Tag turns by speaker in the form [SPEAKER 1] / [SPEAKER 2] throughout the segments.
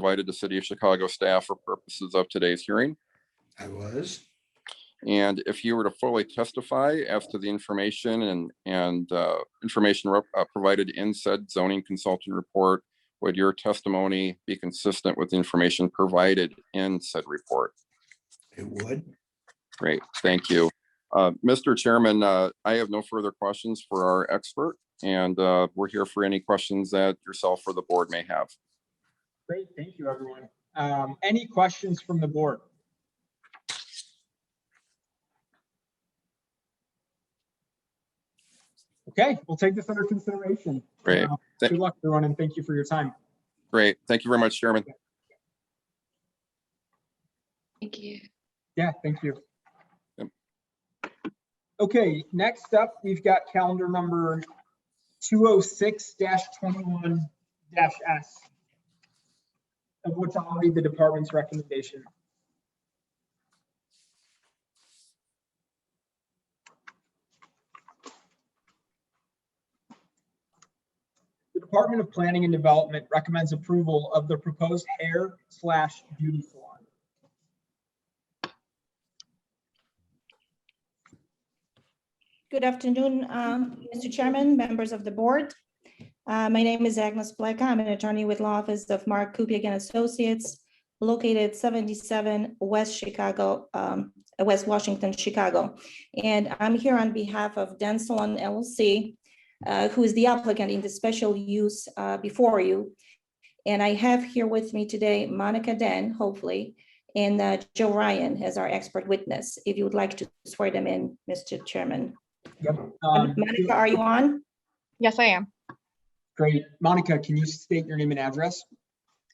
[SPEAKER 1] provided to City of Chicago staff for purposes of today's hearing.
[SPEAKER 2] I was.
[SPEAKER 1] And if you were to fully testify as to the information and, and uh, information rep- uh, provided in said zoning consultant report, would your testimony be consistent with the information provided in said report?
[SPEAKER 2] It would.
[SPEAKER 1] Great, thank you. Uh, Mr. Chairman, uh, I have no further questions for our expert, and uh, we're here for any questions that yourself or the board may have.
[SPEAKER 3] Great, thank you, everyone. Um, Any questions from the board? Okay, we'll take this under consideration.
[SPEAKER 1] Great,
[SPEAKER 3] Uh,
[SPEAKER 1] Thank-
[SPEAKER 3] Good luck, everyone, and thank you for your time.
[SPEAKER 1] great. Thank you very much, Chairman.
[SPEAKER 4] Thank you.
[SPEAKER 3] Yeah, thank you.
[SPEAKER 1] Yep.
[SPEAKER 3] Okay, next up, we've got calendar number 206-21-S, of which I'll read the department's recommendation. The Department of Planning and Development recommends approval of the proposed hair slash beauty salon.
[SPEAKER 5] Good afternoon, uh, Mr. Chairman, members of the board. Uh, My name is Agnes Bleka. I'm an attorney with Law Office of Mark Kupiec and Associates, located 77 West Chicago, um, West Washington, Chicago. And I'm here on behalf of Dan Salon LLC, uh, who is the applicant in the special use uh, before you. And I have here with me today Monica Den, hopefully, and uh, Joe Ryan as our expert witness. If you would like to swear them in, Mr. Chairman.
[SPEAKER 3] Um,
[SPEAKER 5] Monica, are you on?
[SPEAKER 6] Yes, I am.
[SPEAKER 3] Great. Monica, can you state your name and address?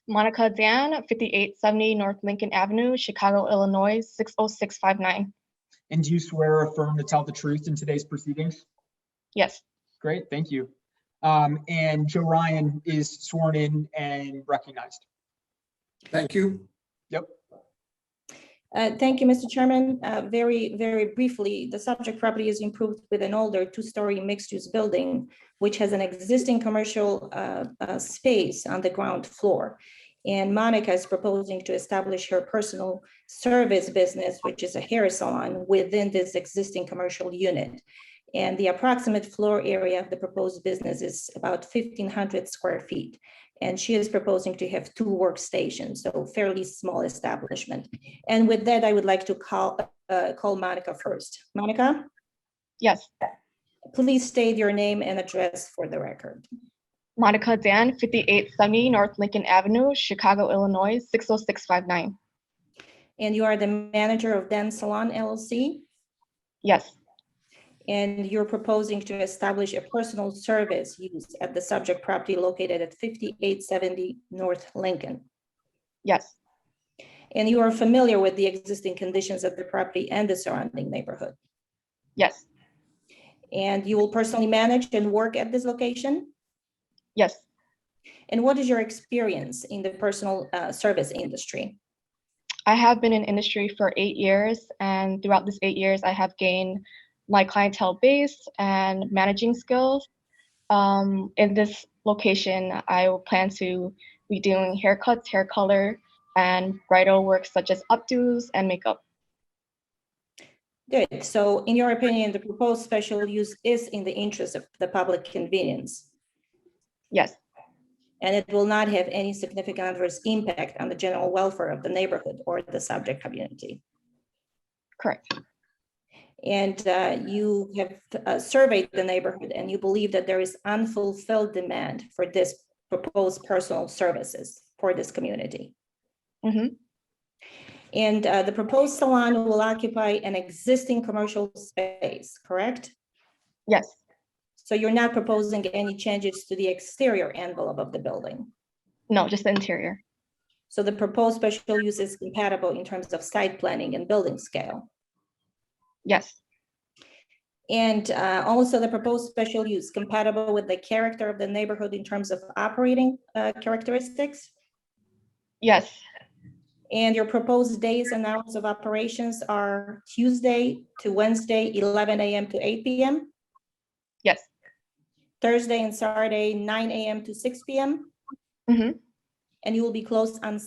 [SPEAKER 6] Monica Dan, 5870 North Lincoln Avenue, Chicago, Illinois, 60659.
[SPEAKER 3] And do you swear or affirm to tell the truth in today's proceedings?
[SPEAKER 6] Yes,
[SPEAKER 3] Great, thank you. Um, and Joe Ryan is sworn in and recognized.
[SPEAKER 2] Thank you.
[SPEAKER 5] Uh, Thank you, Mr. Chairman. Uh, Very, very briefly, the subject property is improved with an older two-story mixed-use building, which has an existing commercial uh, uh, space on the ground floor. And Monica is proposing to establish her personal service business, which is a hair salon, within this existing commercial unit. And the approximate floor area of the proposed business is about 1,500 square feet. And she is proposing to have two workstations, so fairly small establishment. And with that, I would like to call, uh, call Monica first. Monica,
[SPEAKER 6] yes.
[SPEAKER 5] please state your name and address for the record.
[SPEAKER 6] Monica Dan, 5870 North Lincoln Avenue, Chicago, Illinois, 60659.
[SPEAKER 5] And you are the manager of Dan Salon LLC,
[SPEAKER 6] Yes,
[SPEAKER 5] and you're proposing to establish a personal service used at the subject property located at 5870 North Lincoln.
[SPEAKER 6] yes,
[SPEAKER 5] And you are familiar with the existing conditions of the property and the surrounding neighborhood.
[SPEAKER 6] yes,
[SPEAKER 5] And you will personally manage and work at this location?
[SPEAKER 6] yes.
[SPEAKER 5] And what is your experience in the personal uh, service industry?
[SPEAKER 6] I have been in industry for eight years, and throughout this eight years, I have gained my clientele base and managing skills. Um, in this location, I will plan to be doing haircuts, hair color, and bridal work such as updos and makeup.
[SPEAKER 5] Good. So in your opinion, the proposed special use is in the interest of the public convenience,
[SPEAKER 6] Yes,
[SPEAKER 5] and it will not have any significant adverse impact on the general welfare of the neighborhood or the subject community.
[SPEAKER 6] correct.
[SPEAKER 5] And uh, you have uh, surveyed the neighborhood and you believe that there is unfulfilled demand for this proposed personal services for this community.
[SPEAKER 6] Mhm.
[SPEAKER 5] And uh, the proposed salon will occupy an existing commercial space, correct?
[SPEAKER 6] Yes,
[SPEAKER 5] So you're not proposing any changes to the exterior envelope of the building.
[SPEAKER 6] no, just the interior.
[SPEAKER 5] So the proposed special use is compatible in terms of site planning and building scale.
[SPEAKER 6] Yes,
[SPEAKER 5] And uh, also the proposed special use compatible with the character of the neighborhood in terms of operating uh, characteristics.
[SPEAKER 6] yes,
[SPEAKER 5] And your proposed days and hours of operations are Tuesday to Wednesday, 11 AM to 8 PM,
[SPEAKER 6] yes,
[SPEAKER 5] Thursday and Saturday, 9 AM to 6 PM.
[SPEAKER 6] Mhm.
[SPEAKER 5] And and you will be closed on